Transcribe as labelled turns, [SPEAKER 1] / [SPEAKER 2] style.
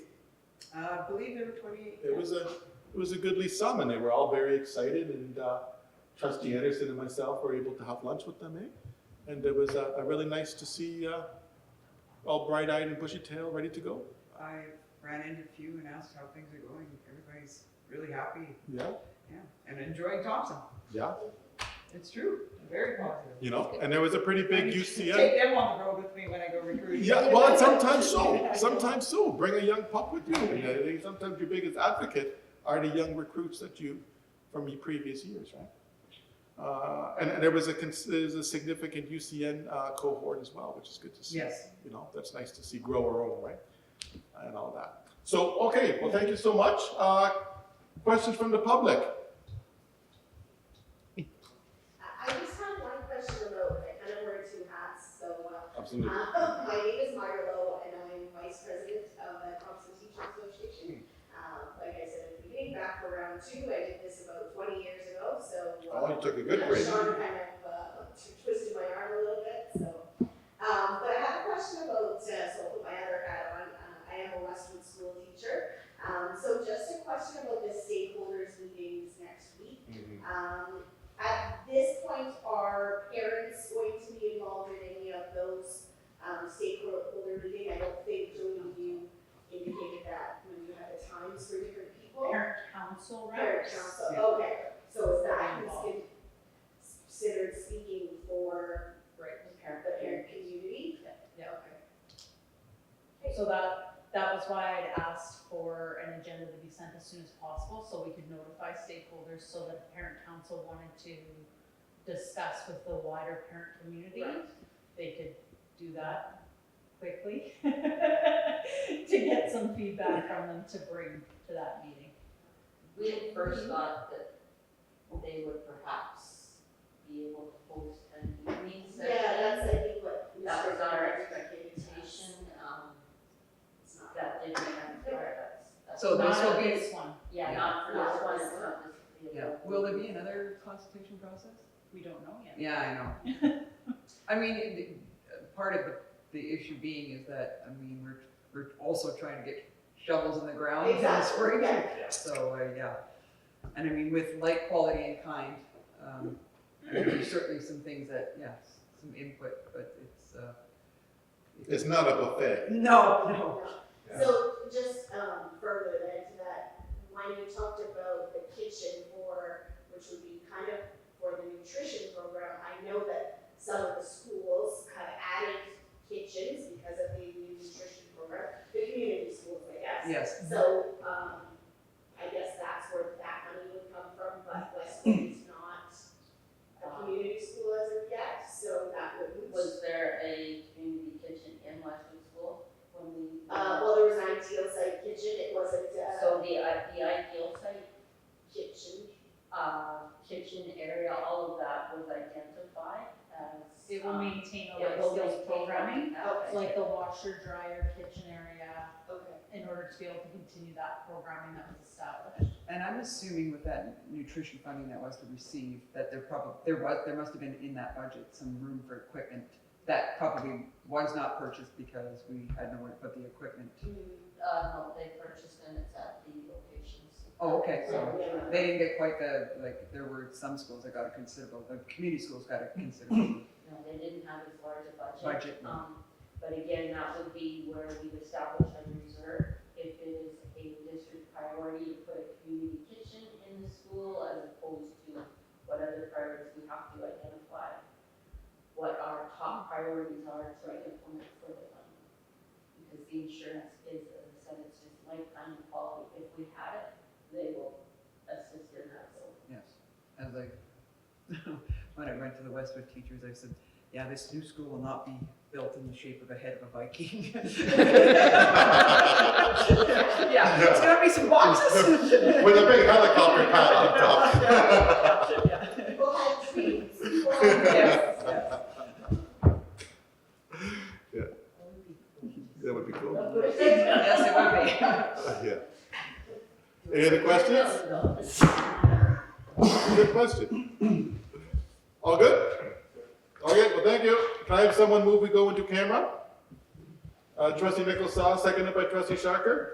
[SPEAKER 1] Uh, I believe there were twenty-eight.
[SPEAKER 2] It was a, it was a goodly sum, and they were all very excited, and uh, trustee Anderson and myself were able to have lunch with them, eh? And it was uh, uh, really nice to see uh, all bright-eyed and bushy-tailed, ready to go.
[SPEAKER 1] I ran into a few and asked how things are going. Everybody's really happy,
[SPEAKER 2] Yeah,
[SPEAKER 1] yeah, and enjoying Thompson.
[SPEAKER 2] yeah,
[SPEAKER 1] It's true, very positive.
[SPEAKER 2] you know, and there was a pretty big UCM.
[SPEAKER 1] Take them on the road with me when I go recruiting.
[SPEAKER 2] Yeah, well, and sometimes so, sometimes so. Bring a young pup with you, and I think sometimes your biggest advocate are the young recruits that you, from your previous years, right? Uh, and, and there was a, cons- there's a significant UCN uh, cohort as well, which is good to see.
[SPEAKER 1] Yes.
[SPEAKER 2] You know, that's nice to see grow our own, right? And all that. So, okay, well, thank you so much. Uh, questions from the public?
[SPEAKER 3] I I just have one question about, I kind of wear two hats, so, uh,
[SPEAKER 2] Absolutely.
[SPEAKER 3] uh, my name is Myra Lowe, and I'm vice president of the Thompson Teaching Association.
[SPEAKER 2] Hmm.
[SPEAKER 3] Uh, like I said at the beginning, back around two, I did this about twenty years ago, so. uh,
[SPEAKER 2] Oh, you took a good break.
[SPEAKER 3] Sean kind of uh, twisted my arm a little bit, so. Um, but I had a question about, uh, so I'll put my other hat on, uh, I am a Westwood school teacher. Um, so just a question about the stakeholders meetings next week. Um, at this point, are parents going to be involved in any of those, um, stakeholder meeting? I don't think, Jody, you indicated that when you had the times for different people.
[SPEAKER 4] Parent council
[SPEAKER 3] Parent
[SPEAKER 4] reps.
[SPEAKER 1] Yeah.
[SPEAKER 3] council, okay, so is that
[SPEAKER 4] Involved.
[SPEAKER 3] considered speaking for
[SPEAKER 4] Right, the
[SPEAKER 3] the
[SPEAKER 4] parent, the parent.
[SPEAKER 3] parent community?
[SPEAKER 4] Yeah.
[SPEAKER 3] Okay.
[SPEAKER 4] So that, that was why I'd asked for an agenda to be sent as soon as possible, so we could notify stakeholders, so that the parent council wanted to discuss with the wider parent community.
[SPEAKER 3] Right.
[SPEAKER 4] They could do that quickly to get some feedback from them to bring to that meeting.
[SPEAKER 5] We at first
[SPEAKER 3] Mm-hmm.
[SPEAKER 5] thought that they would perhaps be able to host an evening session.
[SPEAKER 3] Yeah, that's, I think, what.
[SPEAKER 5] That was our
[SPEAKER 3] Mr.
[SPEAKER 5] expectation, um,
[SPEAKER 3] It's not that.
[SPEAKER 5] that didn't happen for us. That's
[SPEAKER 1] So this
[SPEAKER 5] not
[SPEAKER 1] will be-
[SPEAKER 5] a-
[SPEAKER 4] This one,
[SPEAKER 5] Yeah, not for
[SPEAKER 3] Not
[SPEAKER 5] this one,
[SPEAKER 3] this
[SPEAKER 5] it's not this.
[SPEAKER 1] Yeah, will there be another constitution process?
[SPEAKER 4] we don't know yet.
[SPEAKER 1] Yeah, I know. I mean, it- uh, part of the, the issue being is that, I mean, we're, we're also trying to get shovels in the ground in the
[SPEAKER 3] Exactly,
[SPEAKER 1] spring.
[SPEAKER 3] yeah.
[SPEAKER 1] So, uh, yeah, and I mean, with like quality and kind, um, I mean, there's certainly some things that, yes, some input, but it's, uh.
[SPEAKER 2] It's not a buffet.
[SPEAKER 1] No, Oh, no.
[SPEAKER 3] So just um, further then to that, when you talked about the kitchen for, which would be kind of for the nutrition program, I know that some of the schools have added kitchens because of the new nutrition program, the community schools, I guess.
[SPEAKER 1] Yes,
[SPEAKER 3] So um, I guess that's where that money would come from, but Westwood is not a community school as of yet, so that wouldn't.
[SPEAKER 5] Was there a community kitchen in Westwood School when we?
[SPEAKER 3] Uh, well, there was an ideal site kitchen, it wasn't uh, a
[SPEAKER 5] So the, i- the ideal site,
[SPEAKER 3] kitchen.
[SPEAKER 5] uh, kitchen area, all of that was identified as.
[SPEAKER 4] It will
[SPEAKER 5] um,
[SPEAKER 4] maintain a
[SPEAKER 5] Yeah,
[SPEAKER 4] lot
[SPEAKER 5] we'll
[SPEAKER 4] of
[SPEAKER 5] be
[SPEAKER 4] programming,
[SPEAKER 5] programming.
[SPEAKER 3] Oh,
[SPEAKER 5] Okay.
[SPEAKER 4] like the washer, dryer, kitchen area,
[SPEAKER 3] Okay.
[SPEAKER 4] in order to be able to continue that programming that was established.
[SPEAKER 6] And I'm assuming with that nutrition funding that was to receive, that there probably, there was, there must have been in that budget some room for equipment that probably was not purchased because we had nowhere to put the equipment.
[SPEAKER 5] Uh, no, they purchased them, it's at the locations.
[SPEAKER 6] Oh, okay, so
[SPEAKER 3] Yeah.
[SPEAKER 6] they didn't get quite the, like, there were some schools that got a considerable, the community schools got a considerable
[SPEAKER 5] No, they didn't have as large a budget.
[SPEAKER 6] budget.
[SPEAKER 5] Um, but again, that would be where we've established a reserve. If it is a district priority to put a community kitchen in the school as opposed to what other priorities we have to identify. What our top priorities are to implement for the fund. Because the insurance is, as I said, it's just lifetime and quality. If we had it, they will assist in that, so.
[SPEAKER 6] Yes, I was like, when I went to the Westwood teachers, I said, yeah, this new school will not be built in the shape of a head of a Viking. Yeah, it's gonna be some boxes.
[SPEAKER 2] With a big helicopter pad on top.
[SPEAKER 6] top.
[SPEAKER 3] People had dreams. People had
[SPEAKER 6] Yes,
[SPEAKER 3] dreams.
[SPEAKER 2] That would be cool.
[SPEAKER 6] Yes, it would be.
[SPEAKER 2] Yeah. Any other questions? Good question. All good? Okay, well, thank you. Can I have someone move we go into camera? Uh, trustee Nichols saw, seconded by trustee Shocker.